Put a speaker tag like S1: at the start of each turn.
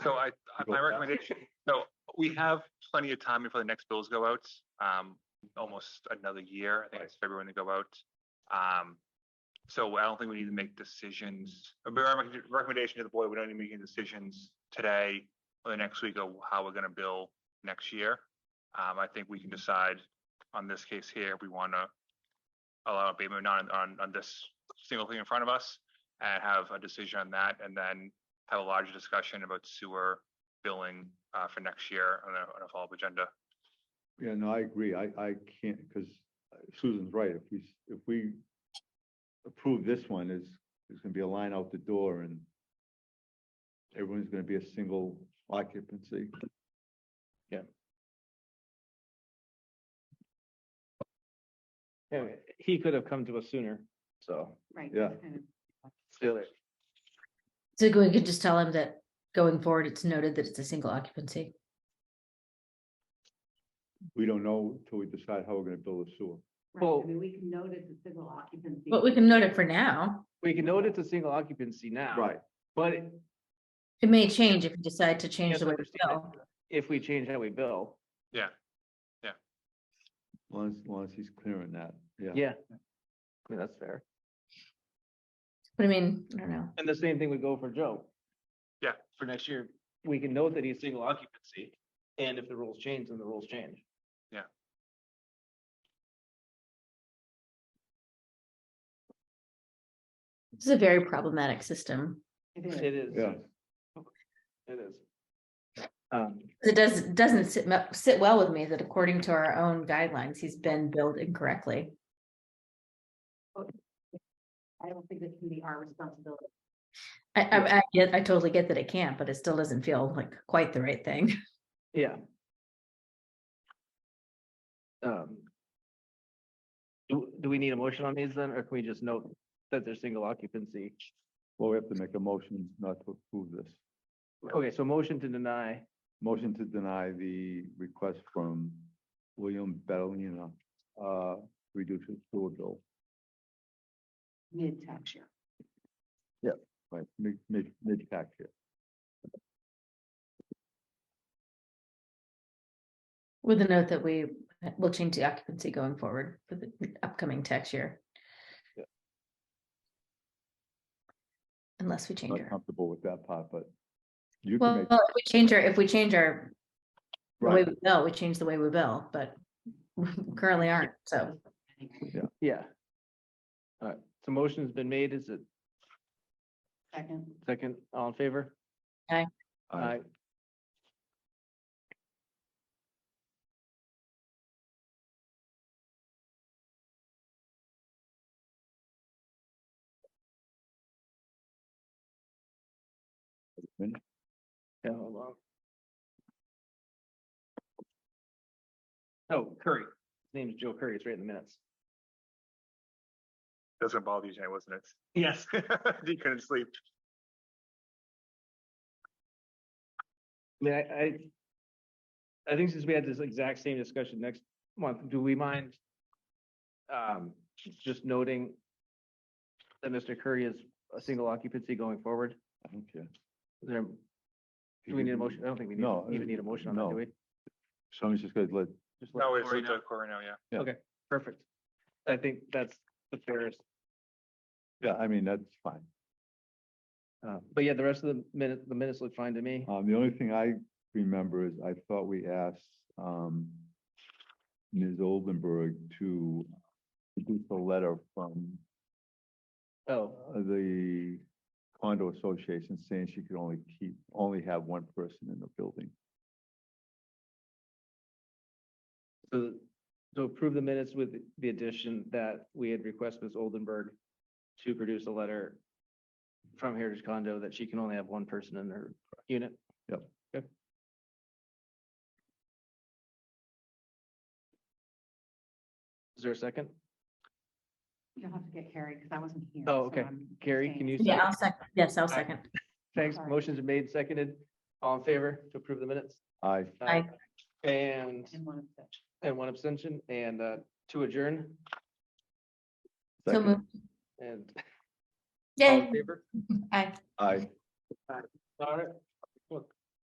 S1: So I, I- my
S2: Go back.
S1: recommendation, so we have plenty of time before the next bills go out, um, almost another year, I think it's February when they go out. Um, so I don't think we need to make decisions, a recommend- recommendation to the board, we don't need to make any decisions today or the next week of how we're gonna bill next year. Um, I think we can decide on this case here, we wanna allow abatement or not on, on this single thing in front of us and have a decision on that, and then have a larger discussion about sewer billing uh, for next year on a, on a follow-up agenda.
S2: Yeah, no, I agree. I, I can't, because Susan's right. If we, s- if we approve this one, is, there's gonna be a line out the door and everyone's gonna be a single occupancy.
S3: Yeah, he could have come to us sooner, so.
S4: Right.
S2: Yeah.
S4: kind of.
S5: So we could just tell him that going forward, it's noted that it's a single occupancy.
S2: We don't know till we decide how we're gonna build a sewer.
S4: Right,
S3: Well-
S4: I mean, we can note it's a civil occupancy.
S5: But we can note it for now.
S3: We can note it's a single occupancy now. But
S5: It may change if you decide to change the way we
S3: Understand
S5: bill.
S3: if we change how we bill,
S1: Yeah,
S2: Long as, long as he's clear on that, yeah.
S3: yeah. I mean, that's fair.
S5: But I mean, I don't know.
S3: And the same thing would go for Joe.
S1: Yeah.
S3: For next year, we can note that he's single occupancy, and if the rules change, then the rules change.
S5: This is a very problematic system.
S4: It is.
S3: It is.
S2: Yeah.
S3: It is. Um,
S5: It does, it doesn't sit, me- sit well with me that according to our own guidelines, he's been billed incorrectly.
S4: I don't think this can be our responsibility.
S5: I, I, I get, I totally get that it can't, but it still doesn't feel like quite the right thing.
S3: yeah. Um. Do, do we need a motion on these then, or can we just note that they're single occupancy?
S2: Well, we have to make a motion not to approve this.
S3: Okay, so motion to deny.
S2: Motion to deny the request from William Bellina, uh, reduce his sewer bill,
S4: Mid-tax year.
S2: right, mid, mid, mid-tax year.
S5: With a note that we will change the occupancy going forward for the upcoming tax year.
S3: Yeah.
S5: Unless we change
S2: not
S5: our,
S2: comfortable with that part, but you um, can
S5: well,
S2: make,
S5: if we change our, if we change our, the way
S2: right,
S5: we bill, we change the way we bill, but we currently aren't, so.
S3: Yeah. All right, so motion's been made. Is it
S4: Second,
S3: second? All in favor?
S2: I,
S3: Yeah, hold on. Oh, Curry. His name is Joe Curry. It's right in the minutes.
S1: doesn't bother you, Jay, wasn't it? Yes. You couldn't sleep.
S3: I mean, I, I. I think since we had this exact same discussion next month, do we mind? Um, just noting. That Mr. Curry is a single occupancy going forward.
S2: I don't care.
S3: Is there, do we need a motion? I don't think we need,
S2: No,
S3: even need a motion on that,
S2: no.
S3: do we?
S2: Someone's just gonna let,
S3: Just let
S1: No, it's
S3: Cory
S1: with
S3: know.
S1: uh, Cory now, yeah.
S3: Perfect. I think that's the fairest.
S2: yeah, I mean, that's fine.
S3: Uh, but yeah, the rest of the minute, the minutes look fine to me.
S2: Um, the only thing I remember is I thought we asked, um, Ms. Oldenburg to produce a letter from
S3: Oh,
S2: uh, the condo association saying she could only keep, only have one person in the building.
S3: so, so approve the minutes with the addition that we had requested Ms. Oldenburg to produce a letter from Heritage Condo that she can only have one person in her unit.
S2: Yep.
S3: Okay. Is there a second?
S4: you'll have to get Carrie, because I wasn't here.
S3: Oh,
S4: so
S3: okay.
S4: I'm
S3: Carrie,
S4: abstaining.
S3: can you?
S5: Yeah, I'll
S3: second?
S5: second, yes, I'll
S3: Aye.
S5: second.
S3: Thanks.
S4: Sorry.
S3: Motion's been made, seconded. All in favor to approve the minutes?
S2: I,
S5: Aye.
S3: Aye. And,
S4: And one abstention.
S3: and one abstention and uh, to adjourn
S5: So
S2: second,
S5: move,
S3: and. all in
S5: yay,
S3: Favor.
S5: aye.
S2: I.
S3: All right.